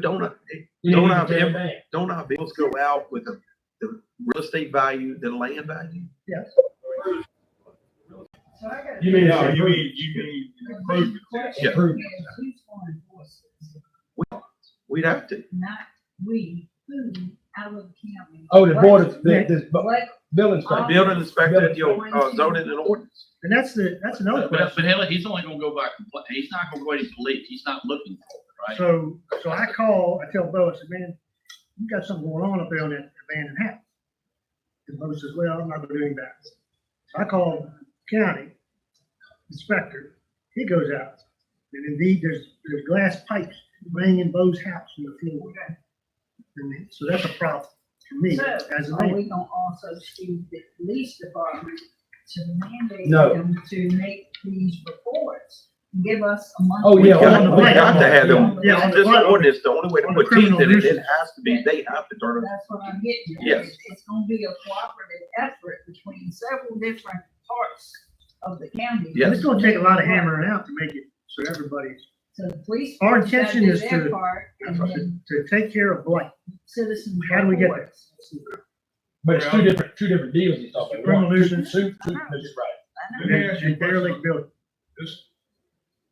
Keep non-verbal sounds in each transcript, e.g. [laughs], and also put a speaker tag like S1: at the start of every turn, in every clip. S1: don't, I-
S2: You
S1: Don't
S2: need
S1: have
S2: to
S1: him.
S2: pay.
S1: don't our bills go out with the, the real estate value, the land value?
S2: Yes.
S3: So I got.
S2: You mean-
S4: No, you mean, you mean, an improvement.
S1: Yeah.
S2: Approved.
S3: Who's going for us?
S1: We'd have to,
S3: Not we, who, our county.
S2: Oh, the board of, the,
S3: What-
S2: this bu-
S3: What,
S2: building
S1: the
S2: inspector.
S1: building inspector, your uh, zoning and ordinance.
S5: Uh, And that's the, that's another
S6: But, but
S5: question.
S6: Haley, he's only gonna go by, compla- he's not gonna go by his belief, he's not looking for it, right?
S5: So, so I call, I tell Bo, I said, man, you got something going on up there on that abandoned house. And Bo says, well, I'm not doing that. So I call county inspector, he goes out. And indeed, there's, there's glass pipes laying in Bo's house in the floor. And so that's a problem for me as a
S3: so are
S5: man.
S3: we gonna also sue the police department to mandate
S2: No.
S3: them to make these reports? Give us a month.
S2: Oh,
S1: We
S2: yeah.
S1: got,
S2: on the
S1: we
S2: right.
S1: got to have them,
S3: Yeah,
S5: on
S1: it's
S5: the
S1: just
S5: right.
S1: ordinance, the only way to
S5: On the
S1: put teeth in
S5: criminal
S1: it, it
S5: nuisance.
S1: has to be, they have to turn it.
S3: That's what I'm getting at.
S1: Yes.
S3: It's- It's gonna be a cooperative effort between several different parts of the county.
S1: Yes.
S5: It's gonna take a lot of hammering out to make it so everybody's,
S3: So the police.
S5: Our
S3: department's gotta
S5: intention
S3: do
S5: is
S3: their
S5: to-
S3: part, And then
S5: to take care of blight.
S3: citizens.
S5: How do we get there?
S3: reports.
S2: But it's two different, two different deals and stuff.
S5: Criminal nuisance.
S2: Two, two, that's right.
S3: I know.
S4: Let me ask you a
S5: And Bear Lake
S4: question.
S5: building.
S4: This-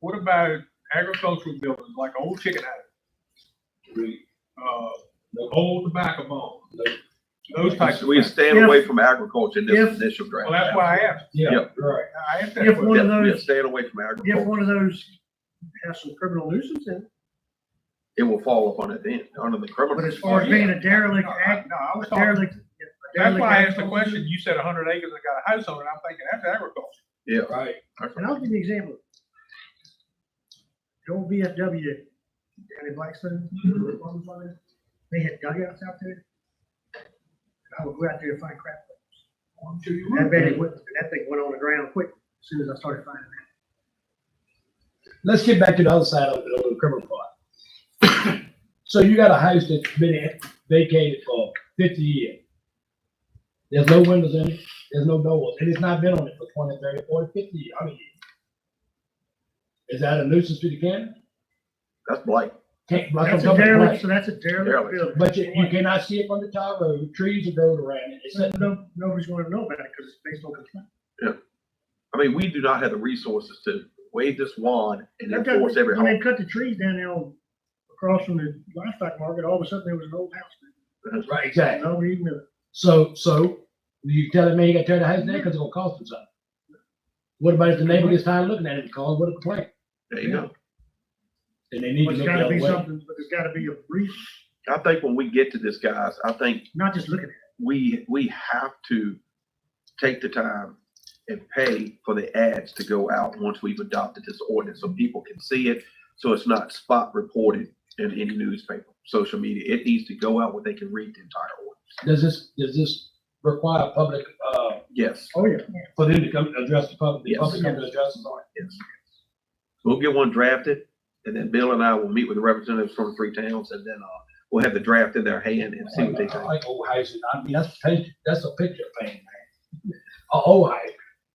S4: What about agricultural buildings, like old chicken house, uh, old tobacco barn? Those types
S1: So
S4: of
S1: We
S4: things.
S1: stand
S5: If-
S1: away from agriculture in
S5: if-
S1: this initial draft.
S4: Well, that's why I asked,
S2: Yeah,
S1: Yep.
S2: right.
S4: I asked
S5: If
S4: that
S5: one
S4: question.
S5: of
S1: Yeah, yeah,
S5: those-
S1: Stand away from
S5: If
S1: agriculture,
S5: one of those has some criminal nuisance in it,
S1: it will fall upon it then, under the criminal.
S5: but as far as
S4: yeah.
S5: being a derelict
S4: No, I-
S5: act,
S4: No, I was
S5: a
S4: talking,
S5: derelict. a
S4: that's
S5: derelict
S4: why I
S5: act-
S4: asked the question, you said hundred acres, I got a house on it, I'm thinking, that's agriculture.
S1: Yeah.
S2: Right.
S5: And I'll give you an example. The old VFW down in Blackstone,
S4: Mm-hmm.
S5: they had dugouts out there. And I would go out there and find crap.
S4: I'm sure you
S5: That baby went, that thing went on the ground quick as soon as I started finding it.
S2: Let's get back to the other side of it, of the criminal part. [coughs] So you got a house that's been vacated for fifty years. There's no windows in it, there's no doors, and it's not been on it for 20, 30, 40, 50 years, I mean. Is that a nuisance to the county?
S1: That's blight.
S2: Can't, like I'm
S5: That's a
S2: talking about, right.
S5: derelict, so that's a derelict
S1: Derelict.
S5: building.
S2: But you, you cannot see it from the top road, trees are growing around it, it's
S5: So
S2: nothing.
S5: no, nobody's gonna know about it because it's based on complaint.
S1: I mean, we do not have the resources to wave this wand and
S5: They've got-
S1: enforce every
S5: When they
S1: home.
S5: cut the trees down there on- across from the livestock market, all of a sudden there was an old house
S2: Right,
S5: there.
S2: exactly.
S5: Nobody even knew. it.
S2: So, so you telling me you gotta tear the house down because it's gonna cost them something? What about if the neighbor gets tired of looking at it and calls with a complaint?
S1: There you go.
S2: Then they need
S5: But
S2: to
S5: it's
S2: look
S5: gotta be
S2: the other way.
S5: something, but there's gotta be a reason,
S1: I think when we get to this, guys, I think
S5: not just looking at it.
S1: we, we have to take the time and pay for the ads to go out once we've adopted this ordinance, so people can see it. So it's not spot reported in any newspaper, social media. It needs to go out where they can read the entire ordinance.
S2: Does this, does this require public, uh,
S1: Yes,
S5: Oh, yeah.
S2: for them to come and address the public, the
S1: Yes.
S2: public come to address us on it?
S1: yes. We'll get one drafted, and then Bill and I will meet with the representatives from the three towns, and then, uh, we'll have the draft in their hand and see what they
S2: Like,
S1: think.
S2: Like old houses, I mean, that's, paint- that's a picture painting, man. A old house,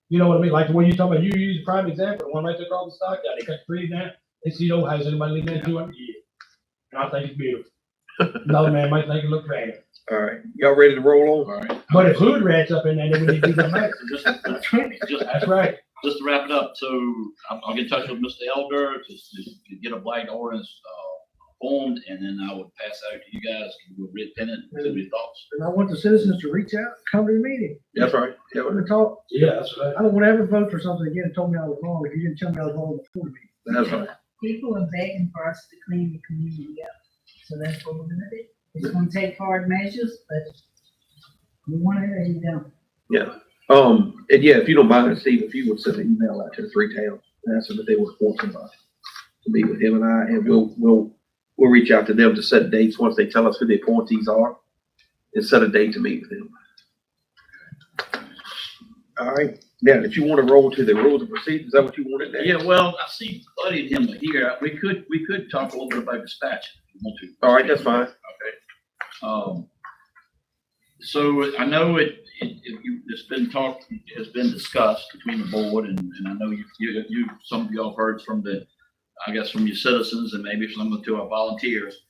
S2: you know what I mean, like the one you talking about, you use a prime example, the one right there across the stock, yeah, they cut trees down, they see the old house, anybody living in two hundred years. And I think it's beautiful. Another man might think it look bad.
S1: All right, y'all ready to roll on?
S2: But if hood rats up in there, then we need to do
S1: [laughs]
S2: the math.
S6: So Just, just, just-
S2: That's right.
S6: just to wrap it up, so I'll, I'll get in touch with Mr. Elder, just, just to get a blight ordinance, uh, formed, and then I would pass out to you guys, can you read pen it, give me your thoughts.
S5: And I want the citizens to reach out, come to the meeting,
S1: That's right. Yeah,
S5: come and talk.
S2: Yeah, that's right.
S5: I don't want to ever vote for something again and told me I was wrong if you didn't tell me I was wrong before the meeting.
S1: that's right.
S3: People are begging for us to clean the community up, so that's what we're gonna do. It's gonna take hard measures, but we want it, you don't.
S1: Um, and yeah, if you don't mind, Steve, if you would send an email out to the three towns, and ask them if they would want somebody to meet with him and I, and we'll, we'll, we'll reach out to them to set dates once they tell us who the appointees are and set a date to meet with them. All right, now, if you want to roll to the rules of procedure, is that what you wanted next?
S6: Yeah, well, I see Buddy and him are here, we could, we could talk a little bit about dispatch, if you want to.
S1: All right, that's fine.
S6: Okay. Um, so I know it, it, it- you- it's been talked, it's been discussed between the board and, and I know you, you, you, some of y'all heard from the, I guess from your citizens and maybe some of the two our volunteers.